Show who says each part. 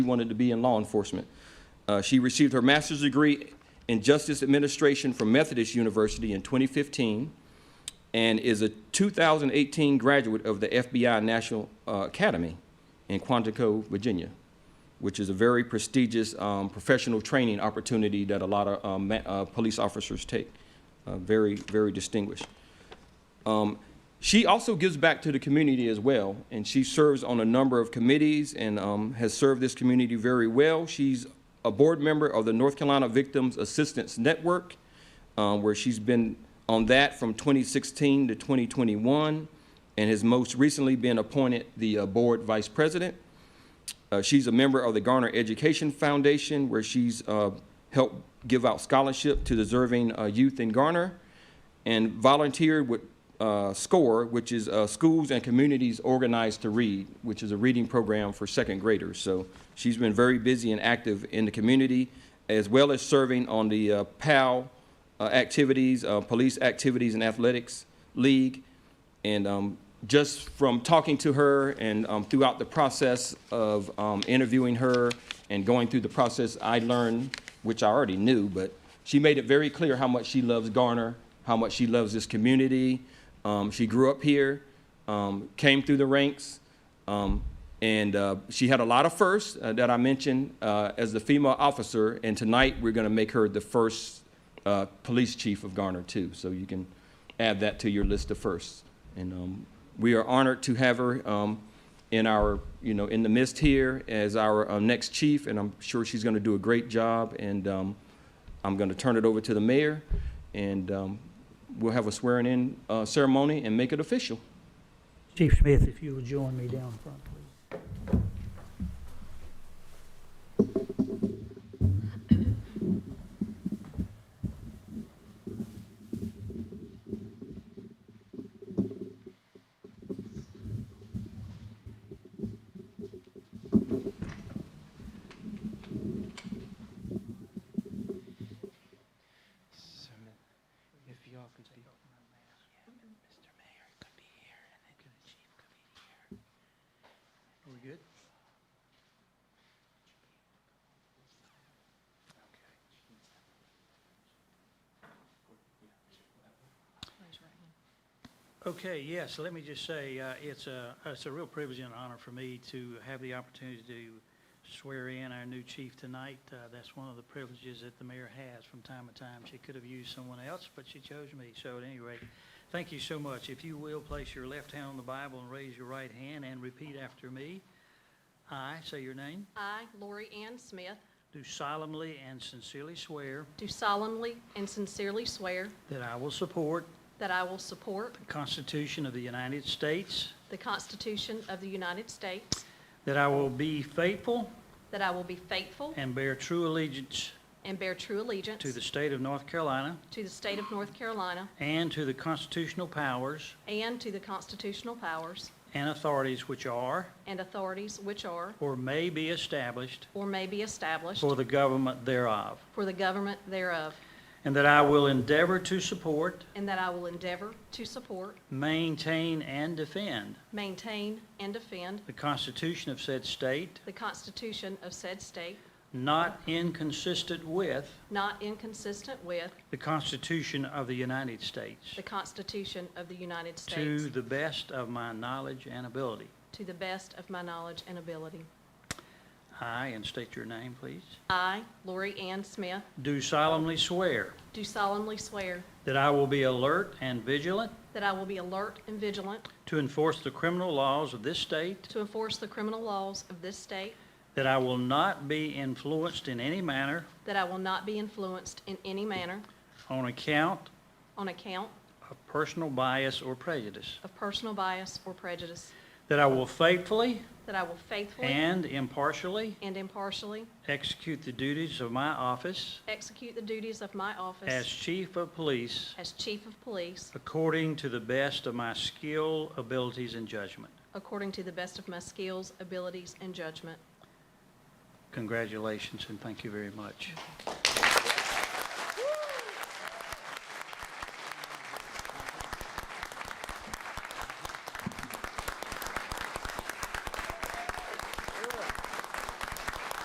Speaker 1: she wanted to be in law enforcement. Uh, she received her master's degree in justice administration from Methodist University in 2015 and is a 2018 graduate of the FBI National uh, Academy in Quantico, Virginia, which is a very prestigious um, professional training opportunity that a lot of um, ma- uh, police officers take. Uh, very, very distinguished. She also gives back to the community as well, and she serves on a number of committees and um, has served this community very well. She's a board member of the North Carolina Victims Assistance Network, um, where she's been on that from 2016 to 2021, and has most recently been appointed the uh, board vice president. Uh, she's a member of the Garner Education Foundation, where she's uh, helped give out scholarship to deserving uh, youth in Garner, and volunteered with uh, SCORE, which is uh, Schools and Communities Organized to Read, which is a reading program for second graders. So she's been very busy and active in the community, as well as serving on the uh, PAL uh, activities, uh, Police Activities and Athletics League, and um, just from talking to her and um, throughout the process of um, interviewing her and going through the process, I learned, which I already knew, but she made it very clear how much she loves Garner, how much she loves this community. Um, she grew up here, um, came through the ranks, um, and uh, she had a lot of firsts uh, that I mentioned uh, as the female officer. And tonight we're going to make her the first uh, police chief of Garner too. So you can add that to your list of firsts. And um, we are honored to have her um, in our, you know, in the midst here as our uh, next chief. And I'm sure she's going to do a great job. And um, I'm going to turn it over to the mayor, and um, we'll have a swearing-in uh, ceremony and make it official.
Speaker 2: Chief Smith, if you will join me down front, please.
Speaker 3: So, if y'all can speak. Mr. Mayor could be here, and then the chief could be here. Are we good? Okay, yes, let me just say, uh, it's a, it's a real privilege and honor for me to have the opportunity to swear in our new chief tonight. Uh, That's one of the privileges that the mayor has from time to time. She could have used someone else, but she chose me, so at any rate, thank you so much. If you will, place your left hand on the Bible and raise your right hand and repeat after me. I, say your name,
Speaker 4: I, Lori Ann Smith,
Speaker 3: do solemnly and sincerely swear
Speaker 4: do solemnly and sincerely swear
Speaker 3: that I will support
Speaker 4: that I will support
Speaker 3: the Constitution of the United States,
Speaker 4: the Constitution of the United States,
Speaker 3: that I will be faithful
Speaker 4: that I will be faithful
Speaker 3: and bear true allegiance
Speaker 4: and bear true allegiance
Speaker 3: to the state of North Carolina
Speaker 4: to the state of North Carolina
Speaker 3: and to the constitutional powers
Speaker 4: and to the constitutional powers
Speaker 3: and authorities which are
Speaker 4: and authorities which are
Speaker 3: or may be established
Speaker 4: or may be established
Speaker 3: for the government thereof,
Speaker 4: for the government thereof,
Speaker 3: and that I will endeavor to support,
Speaker 4: and that I will endeavor to support,
Speaker 3: maintain, and defend
Speaker 4: maintain, and defend
Speaker 3: the Constitution of said state,
Speaker 4: the Constitution of said state,
Speaker 3: not inconsistent with
Speaker 4: not inconsistent with
Speaker 3: the Constitution of the United States,
Speaker 4: the Constitution of the United States.
Speaker 3: to the best of my knowledge and ability.
Speaker 4: To the best of my knowledge and ability.
Speaker 3: I, and state your name, please,
Speaker 4: I, Lori Ann Smith,
Speaker 3: do solemnly swear
Speaker 4: do solemnly swear
Speaker 3: that I will be alert and vigilant
Speaker 4: that I will be alert and vigilant
Speaker 3: To enforce the criminal laws of this state.
Speaker 4: to enforce the criminal laws of this state,
Speaker 3: That I will not be influenced in any manner
Speaker 4: that I will not be influenced in any manner
Speaker 3: on account
Speaker 4: on account
Speaker 3: of personal bias or prejudice.
Speaker 4: of personal bias or prejudice,
Speaker 3: That I will faithfully
Speaker 4: that I will faithfully
Speaker 3: and impartially
Speaker 4: and impartially
Speaker 3: execute the duties of my office
Speaker 4: execute the duties of my
Speaker 3: as
Speaker 4: office
Speaker 3: chief of police
Speaker 4: as chief of police
Speaker 3: according to the best of my skill, abilities, and judgment.
Speaker 4: according to the best of my skills, abilities, and judgment.
Speaker 3: Congratulations and thank you very much.